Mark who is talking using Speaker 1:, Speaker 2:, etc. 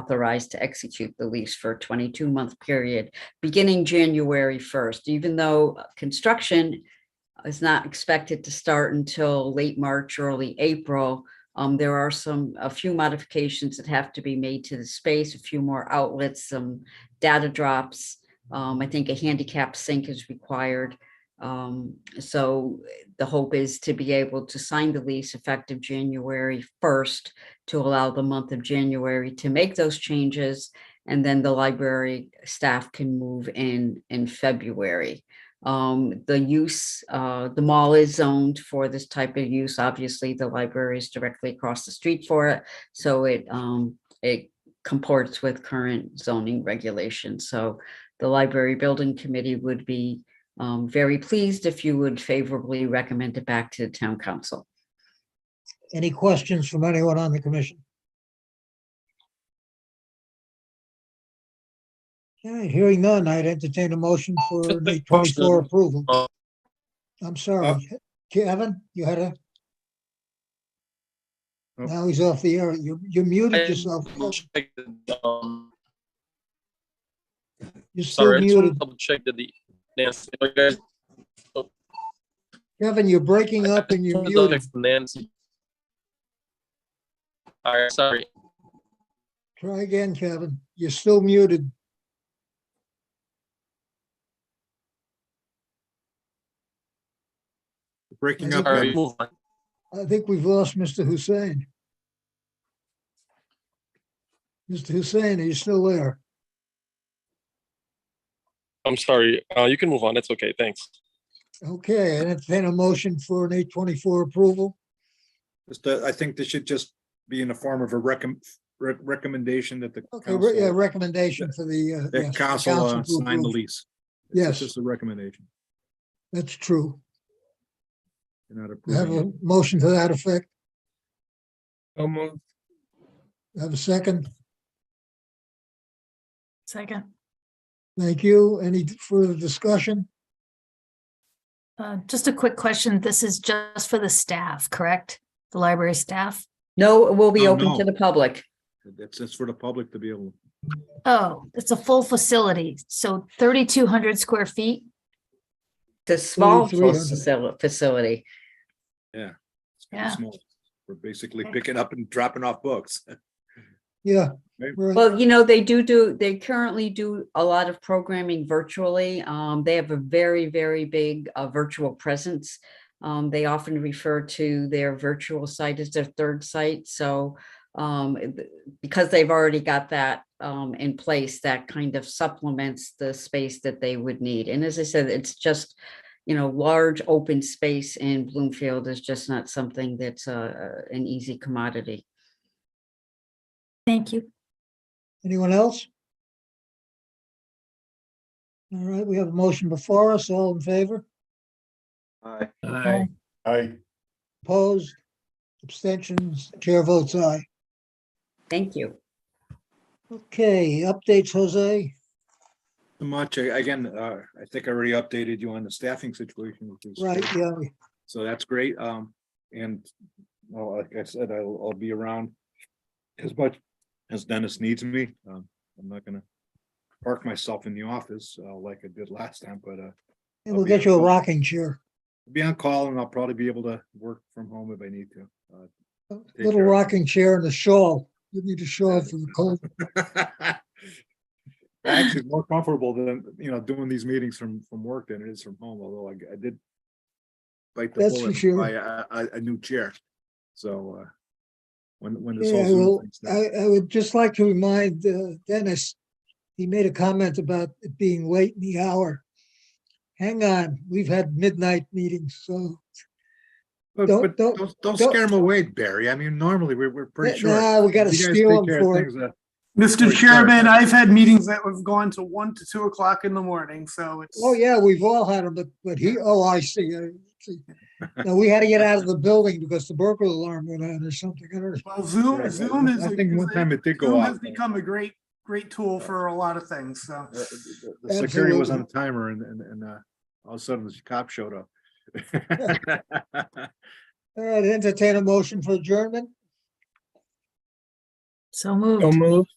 Speaker 1: authorized to execute the lease for a 22-month period beginning January 1st, even though uh, construction is not expected to start until late March, early April. Um, There are some, a few modifications that have to be made to the space, a few more outlets, some data drops. Um, I think a handicap sink is required. Um, So the hope is to be able to sign the lease effective January 1st to allow the month of January to make those changes. And then the library staff can move in in February. Um, the use, uh, the mall is zoned for this type of use. Obviously, the library is directly across the street for it. So it, um, it comports with current zoning regulations. So the library building committee would be, um, very pleased if you would favorably recommend it back to the town council.
Speaker 2: Any questions from anyone on the commission? Okay, hearing none, I'd entertain a motion for
Speaker 3: Just a
Speaker 2: the
Speaker 3: question.
Speaker 2: twenty-four approval.
Speaker 3: Uh,
Speaker 2: I'm sorry, Kevin, you had a?
Speaker 3: Oh.
Speaker 2: Now he's off the air. You, you muted yourself.
Speaker 3: Double check that, um,
Speaker 2: You're still
Speaker 3: Sorry, I just wanna
Speaker 2: muted.
Speaker 3: double check that the, Nancy, Oh, you guys,
Speaker 2: Kevin, you're breaking
Speaker 3: I
Speaker 2: up and
Speaker 3: just
Speaker 2: you're
Speaker 3: wanna double
Speaker 2: muted.
Speaker 3: check from Nancy. All right, sorry.
Speaker 2: Try again, Kevin. You're still muted.
Speaker 4: Breaking
Speaker 2: I
Speaker 4: up,
Speaker 2: think
Speaker 3: All right,
Speaker 4: Evan.
Speaker 3: move on.
Speaker 2: I think we've lost Mr. Hussein. Mr. Hussein, are you still there?
Speaker 3: I'm sorry. Uh, you can move on. It's okay. Thanks.
Speaker 2: Okay, and entertain a motion for an eight twenty-four approval.
Speaker 4: Just, uh, I think this should just be in the form of a recomm re- recommendation that the
Speaker 2: Okay, re- yeah,
Speaker 4: council,
Speaker 2: recommendation for the. uh,
Speaker 4: that
Speaker 2: yes, the
Speaker 4: council uh,
Speaker 2: council to
Speaker 4: sign the
Speaker 2: approve.
Speaker 4: lease. It's
Speaker 2: Yes.
Speaker 4: Just a recommendation.
Speaker 2: That's true.
Speaker 4: You're not
Speaker 2: We have
Speaker 4: approving.
Speaker 2: a
Speaker 4: it.
Speaker 2: motion to that effect.
Speaker 3: So moved.
Speaker 2: Have a second.
Speaker 5: Second,
Speaker 2: Thank you. Any further discussion?
Speaker 5: uh, just a quick question. This is just for the staff, correct? The library staff?
Speaker 1: No, it will be
Speaker 4: Oh,
Speaker 1: open to
Speaker 4: no.
Speaker 1: the public.
Speaker 4: It's, it's for the public to be able,
Speaker 5: Oh, it's a full facility, so thirty-two hundred square feet.
Speaker 1: The small
Speaker 2: 300.
Speaker 1: facil- facility.
Speaker 4: it's pretty
Speaker 5: Yeah.
Speaker 4: small. We're basically
Speaker 5: Okay.
Speaker 4: picking up and dropping off books.
Speaker 2: Yeah.
Speaker 4: Right.
Speaker 2: right.
Speaker 1: Well, you know, they do do, they currently do a lot of programming virtually. Um, they have a very, very big, uh, virtual presence. Um, they often refer to their virtual site as their third site, so, um, it- because they've already got that, um, in place, that kind of supplements the space that they would need. And as I said, it's just, you know, large open space in Bloomfield is just not something that's, uh, an easy commodity.
Speaker 5: Thank you.
Speaker 2: Anyone else? All right, we have a motion before us. All in favor?
Speaker 4: Aye.
Speaker 5: Aye.
Speaker 4: Aye.
Speaker 2: Opposed? Abstentions? Chair votes aye.
Speaker 1: Thank you.
Speaker 2: Okay, updates, Jose?
Speaker 4: Much, I- again, uh, I think I already updated you on the staffing situation. which is-
Speaker 2: Right, yeah,
Speaker 4: So that's great. Um, and well, like I said, I'll, I'll be around as much as Dennis needs me. Um, I'm not gonna park myself in the office, uh, like I did last time, but, uh,
Speaker 2: and we'll get you a rocking chair,
Speaker 4: be on call and I'll probably be able to work from home if I need to.
Speaker 2: a
Speaker 4: Take
Speaker 2: little
Speaker 4: care.
Speaker 2: rocking chair and a shawl. You need a shawl for the cold.
Speaker 4: Uh, Actually, it's more comfortable than, you know, doing these meetings from, from work than it is from home, although I, I did bite the
Speaker 2: That's for
Speaker 4: bullet and
Speaker 2: sure.
Speaker 4: buy a, a, a new chair. So, uh, when, when this
Speaker 2: Yeah,
Speaker 4: whole Zoom
Speaker 2: well,
Speaker 4: thing's done.
Speaker 2: I, I would just like to remind uh, Dennis, he made a comment about it being late in the hour. Hang on, we've had midnight meetings, so
Speaker 4: But,
Speaker 2: Don't-
Speaker 4: but
Speaker 2: don't-
Speaker 4: don't, don't
Speaker 2: don't-
Speaker 4: scare them away, Barry. I mean, normally we're, we're pretty sure.
Speaker 2: now we gotta steal them for it.
Speaker 4: Or
Speaker 6: Mr.
Speaker 4: start.
Speaker 6: Chairman, I've had meetings that have gone to one to two o'clock in the morning, so it's.
Speaker 2: Oh, yeah, we've all had them, but, but he, oh, I see. I see. No, we had to get out of the building because the burglar alarm went on or something. I don't
Speaker 6: Well, Zoom, Zoom is.
Speaker 4: I think one time it did go
Speaker 6: Zoom
Speaker 4: off.
Speaker 6: has become a great, great tool for a lot of things, so.
Speaker 4: Uh, The security was on a timer and, and, and, uh, all of a sudden the cop showed up.
Speaker 2: All right, entertain a motion for adjournment.
Speaker 5: So moved.
Speaker 3: moved.